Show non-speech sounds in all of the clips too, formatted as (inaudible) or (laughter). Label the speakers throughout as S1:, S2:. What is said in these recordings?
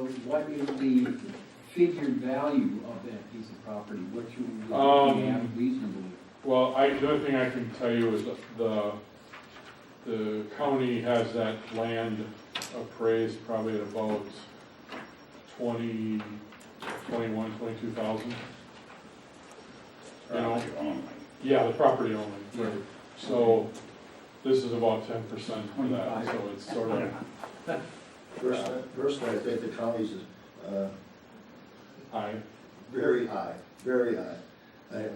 S1: what is the figured value of that piece of property? What you would
S2: Um,
S1: be at reasonably?
S2: Well, I, the other thing I can tell you is that the, the county has that land appraised probably at about twenty, twenty-one, twenty-two thousand. You know, yeah, the property only, right. so this is about ten percent for that, so it's sort of
S3: Personally, personally, I think the county's is uh,
S2: high.
S3: very high, very high. I-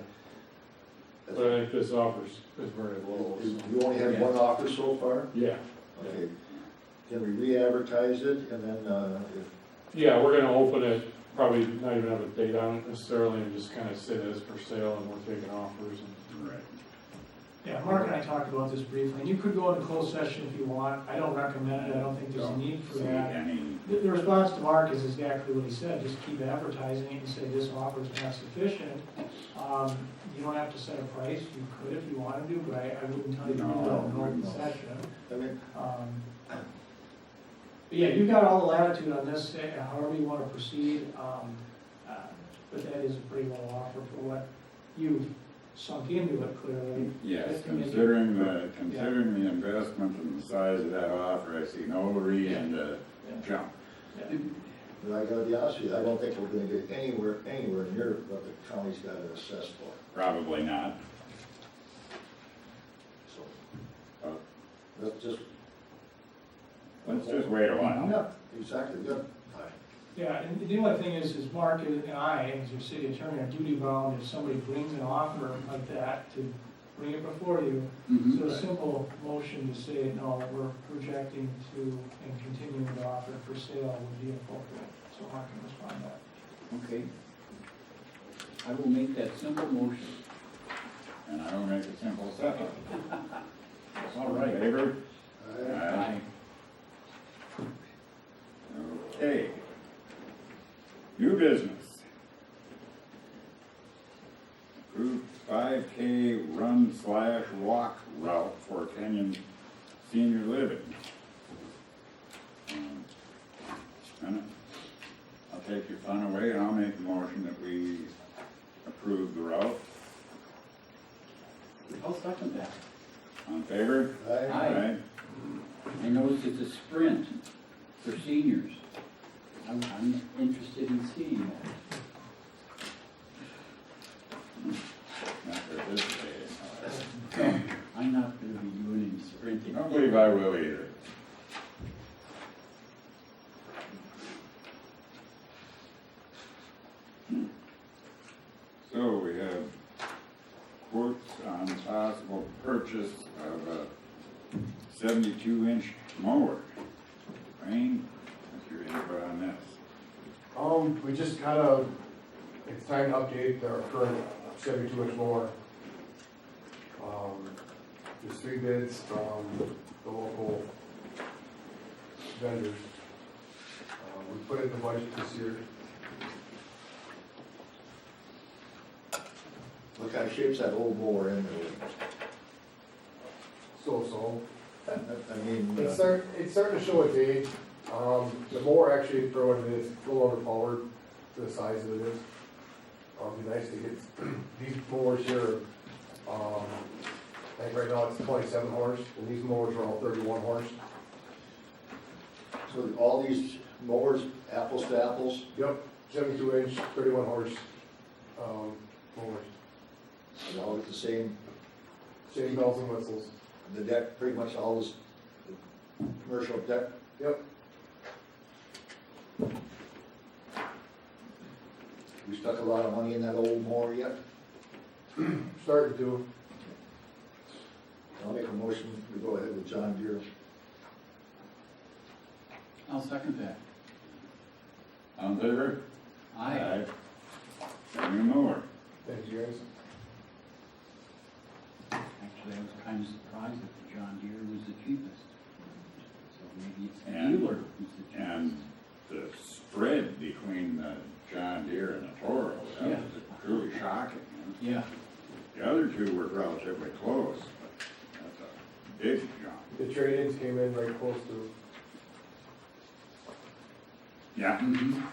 S2: But I think this offers is very low, so,
S3: You only had one offer so far?
S2: yeah.
S3: Okay. Can we re-advertise it and then, uh, if-
S2: Yeah, we're gonna open it, probably not even have a date on it necessarily, and just kind of say that it's for sale and we're taking offers and.
S4: Yeah, Mark and I talked about this briefly, and you could go into closed session if you want, I don't recommend it, I don't think there's a need for that. The, the response to Mark is exactly what he said, just keep advertising it and say this offer is not sufficient. Um, you don't have to set a price, you could if you wanted to, but I, I wouldn't tell you to do that in an open session.
S3: I mean,
S4: Um, But yeah, you've got all the latitude on this, eh, however you want to proceed, um, uh, but that is a pretty low offer for what you've sunk into it clearly.
S5: Yes, considering the, considering the investment and the size of that offer, I see no reason to jump.
S3: but I gotta be honest with you, I don't think we're gonna get anywhere, anywhere near what the county's got to assess for,
S5: Probably not.
S3: so.
S5: Oh.
S3: Let's just.
S5: Let's just wait a while.
S3: Yeah, exactly, yeah. Aye.
S4: Yeah, and the only thing is, is Mark and and I, as your city attorney, are duty bound if somebody brings an offer like that to bring it before you.
S1: Mm-hmm.
S4: So a simple motion to say, no, we're rejecting to, and continuing to offer it for sale would be appropriate. So Mark can respond to that.
S1: Okay. I will make that simple motion.
S5: And I will make a simple second. All right. Favor?
S3: Aye.
S5: Aye. Okay. New business. Approved five K run slash walk route for Kenyon senior living. Um, and Um, I'll take your fun away and I'll make the motion that we approve the route.
S1: I'll second that.
S5: On favor?
S3: Aye.
S1: Aye. I noticed it's a sprint for seniors. I'm, I'm interested in seeing that.
S5: Not for this day.
S1: I'm not gonna be doing any
S5: I
S1: sprinting.
S5: don't believe I will either. So we have quotes on possible purchase of a seventy-two inch mower. Rain, what's your input on this?
S6: Um, we just kind of, it's time to update our current seventy-two inch mower. Um, there's three bids from the local vendors. Uh, we put it in the budget this year.
S3: What kind of shape's that old mower in there?
S6: So-so.
S3: (laughs) I- I mean.
S6: It's
S3: uh,
S6: start, it's starting to show its age. Um, the mower actually, for what it is, it's a little overpowered for the size that it is. Um, it'd be nice to get, (clears throat) these mowers here, um, I think right now it's twenty-seven horse, and these mowers are all thirty-one horse.
S3: So all these mowers, apples to apples,
S6: Yep, seventy-two inch, thirty-one horse, um, mowers.
S3: they all get the same,
S6: Same bells and whistles.
S3: the deck, pretty much all this, the commercial deck.
S6: Yep,
S3: We stuck a lot of money in that old mower yet.
S6: (clears throat) starting to,
S3: I'll make a motion, we go ahead with John Deere.
S1: I'll second that.
S5: On favor?
S1: Aye.
S5: Got a new mower.
S6: thank you guys.
S1: Actually, I was kind of surprised that the John Deere was the cheapest. So maybe it's the
S5: And-
S1: dealer who's the cheapest.
S5: And the spread between the John Deere and the Toro, that
S1: Yeah.
S5: was truly shocking. huh?
S1: Yeah,
S5: The other two were relatively close, but that's a big jump.
S6: The trade-ins came in very close to,
S5: Yeah.
S1: Mhm.